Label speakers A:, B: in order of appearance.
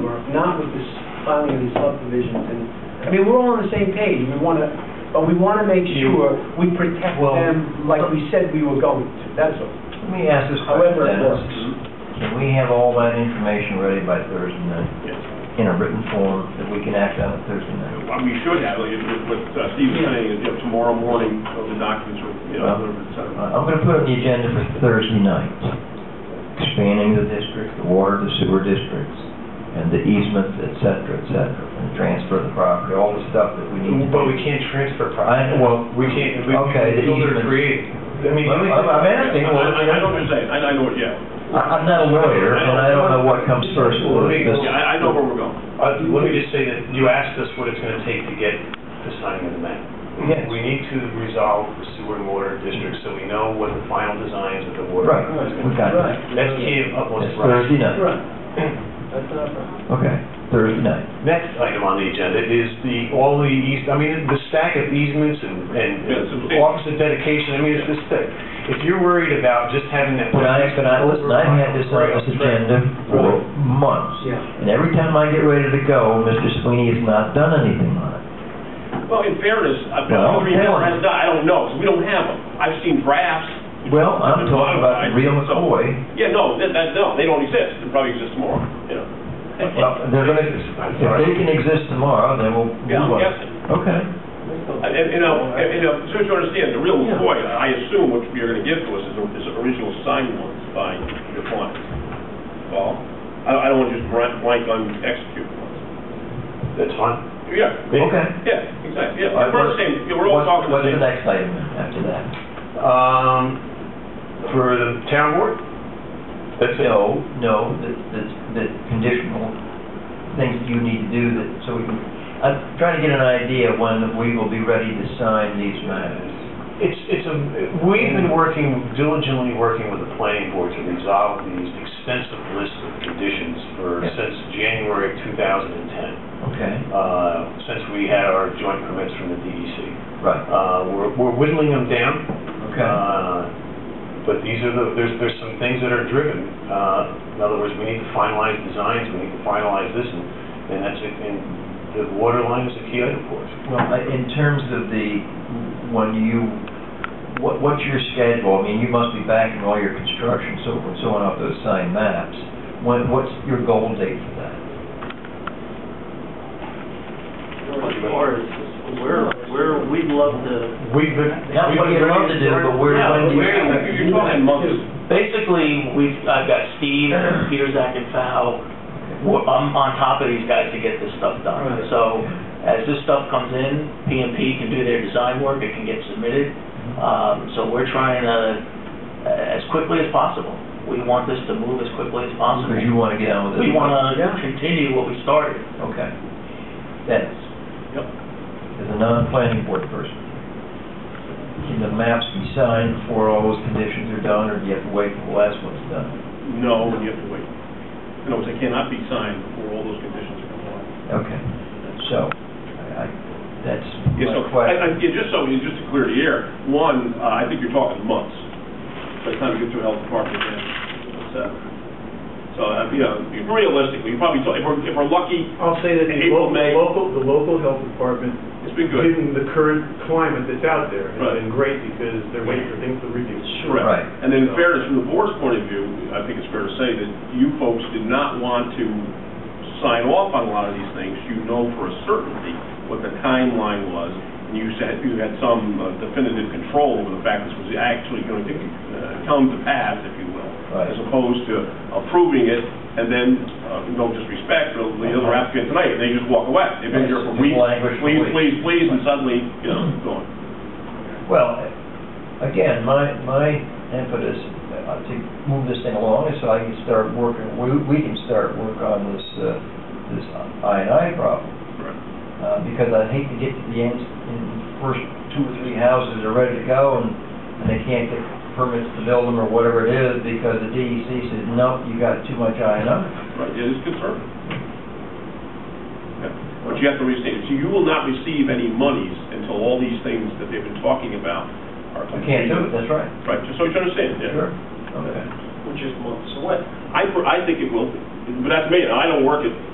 A: filing of these subdivisions, and, I mean, we're all on the same page, we want to, but we want to make
B: You-
A: sure we protect
B: Well-
A: them like we said we were going to, that's all.
B: Let me ask this
A: However
B: question,
A: it
B: Dennis.
A: works.
B: Can we have all that information ready by Thursday night, in a written form, that we can act on it Thursday night?
C: Well, We should have, like, what- what uh, Steve was
A: Yeah.
C: saying, is, you know, tomorrow morning, uh, the documents will, you know, et
B: Uh,
C: cetera.
B: I'm gonna put on the agenda for Thursday night, expanding the district, the water, the sewer districts, and the easements, et cetera, et cetera, and transfer the property, all the stuff that we need to do.
D: But we can't transfer property.
B: I- well,
D: We can't, we,
B: okay, the
D: we build or
B: easement.
D: create. I mean,
B: I'm- I'm asking,
C: I,
B: well,
C: I I know what you're saying, I, I know, what- yeah,
B: I- I'm not a lawyer, and I don't know what comes first,
D: Well, we-
B: this-
C: yeah, I, I know where we're going.
D: uh, let me just say that you asked us what it's gonna take to get the sign of the map.
B: Yes.
D: We need to resolve the sewer and water districts so we know what the final designs of the water.
B: Right,
D: is
B: we
D: gonna
B: got it.
D: be. That's key of what's
B: It's
D: right.
B: Thursday night,
A: Right, that's not a problem.
B: okay, Thursday night.
D: Next item on the agenda is the, all the eas, I mean, the stack of easements and,
C: Yeah,
D: and
C: substantial.
D: office of dedication, I mean, it's this thick. If you're worried about just having that.
B: But I, but I, listen, I've had this on this agenda for months,
A: Yeah.
B: and every time I get ready to go, Mr. Sweeney has not done anything on it.
C: Well, in fairness, uh, I,
B: Well,
C: I mean,
B: yeah.
C: I don't- I don't know, 'cause we don't have them. I've seen drafts.
B: Well, I'm talking about the real McCoy,
C: Yeah, no, that, that, no, they don't exist, they'll probably exist tomorrow, you know.
B: well, they're gonna, if they can exist tomorrow, then we'll
C: Yeah,
B: move
C: I'm
B: on.
C: guessing.
B: Okay,
C: And, and, you know, and, you know, so you understand, the real McCoy, I assume what you're gonna give to us is, the- is the original signed ones by your clients. Well, I, I don't wanna just blank, blank on execute ones.
D: That's fine.
C: Yeah,
B: okay.
C: yeah, exactly, yeah, we're the same, yeah, we're all
B: What's-
C: talking the
B: What's
C: same.
B: the next item after that?
D: Um, for the town board? That's it.
B: No, no, that, that- that conditional things that you need to do that, so we can, I'm trying to get an idea when we will be ready to sign these matters.
D: It's, it's a, we've been working, diligently working with the planning board to resolve these extensive lists of conditions for,
B: Yeah.
D: since January of 2010,
B: Okay,
D: uh, since we had our joint permits from the DEC.
B: right,
D: Uh, we're, we're whittling them down.
B: okay.
D: Uh, But these are the, there's, there's some things that are driven. Uh, In other words, we need to finalize designs, we need to finalize this, and and that's, it. and the water line is a key item for us.
B: Well, I- in terms of the, when you, what, what's your schedule? I mean, you must be backing all your construction, so, and so on off those signed maps. When, what's your goal date for that?
E: Or is, we're, we're, we'd love to,
D: We've been.
B: Not what you love to do, but where, when do you?
C: Yeah, but you're- You're talking months.
E: basically, we've, I've got Steve, Peter, Zach, and Fal, we're- I'm on top of these guys to get this stuff done.
A: Right.
E: So as this stuff comes in, PMP can do their design work, it can get submitted. Um, so we're trying to, as quickly as possible. We want this to move as quickly as possible.
B: Because you wanna get on with
E: We
B: this.
E: wanna
A: Yeah.
E: continue what we started.
B: Okay. Dennis?
C: Yep.
B: As a non-planning board person, can the maps be signed before all those conditions are done, or do you have to wait till the last one's done?
C: No, you have to wait. No, they cannot be signed before all those conditions are complied.
B: Okay, so, I, I- that's
C: Yeah, so,
B: my
C: I, I,
B: question.
C: yeah, just so, just to clear the air, one, uh, I think you're talking months, by the time you get through health department and, so. So, uh, you know, realistically, you probably, talk- if we're, if we're lucky,
F: I'll say that the local,
C: April, May.
F: local- the local health department,
C: it's been good.
F: given the current climate that's out there,
C: Right.
F: has been great because they're waiting for things to review.
C: Correct.
B: Right.
C: And then in fairness, from the board's point of view, I think it's fair to say that you folks did not want to sign off on a lot of these things. You know for a certainty what the timeline was, and you said you had some uh, definitive control over the fact this was actually going to uh, come to pass, if you will,
B: Right.
C: as opposed to approving it and then, uh, no disrespect, but the other applicant tonight, they just walk away. They've been here for
B: Just
C: weeks,
B: Uh-huh. languish for
C: please,
B: weeks.
C: please, please, and suddenly, you know, gone.
B: Well, again, my, my impetus uh, to move this thing along is so I can start working, we, we can start work on this, uh, this I and I problem.
C: Right.
B: Uh, because I hate to get to the end, and the first two or three houses are ready to go, and, and they can't get permits to build them or whatever it is, because the DEC says, nope, you got too much I and I.
C: Right, it is conservative. Yeah, But you have to understand, so you will not receive any monies until all these things that they've been talking about are
B: You
C: completed.
B: can't do it, that's right.
C: Right, just so you understand, yeah.
B: Sure. Okay.
A: Which is months away.
C: I, per- I think it will, be. but that's me, and I don't work at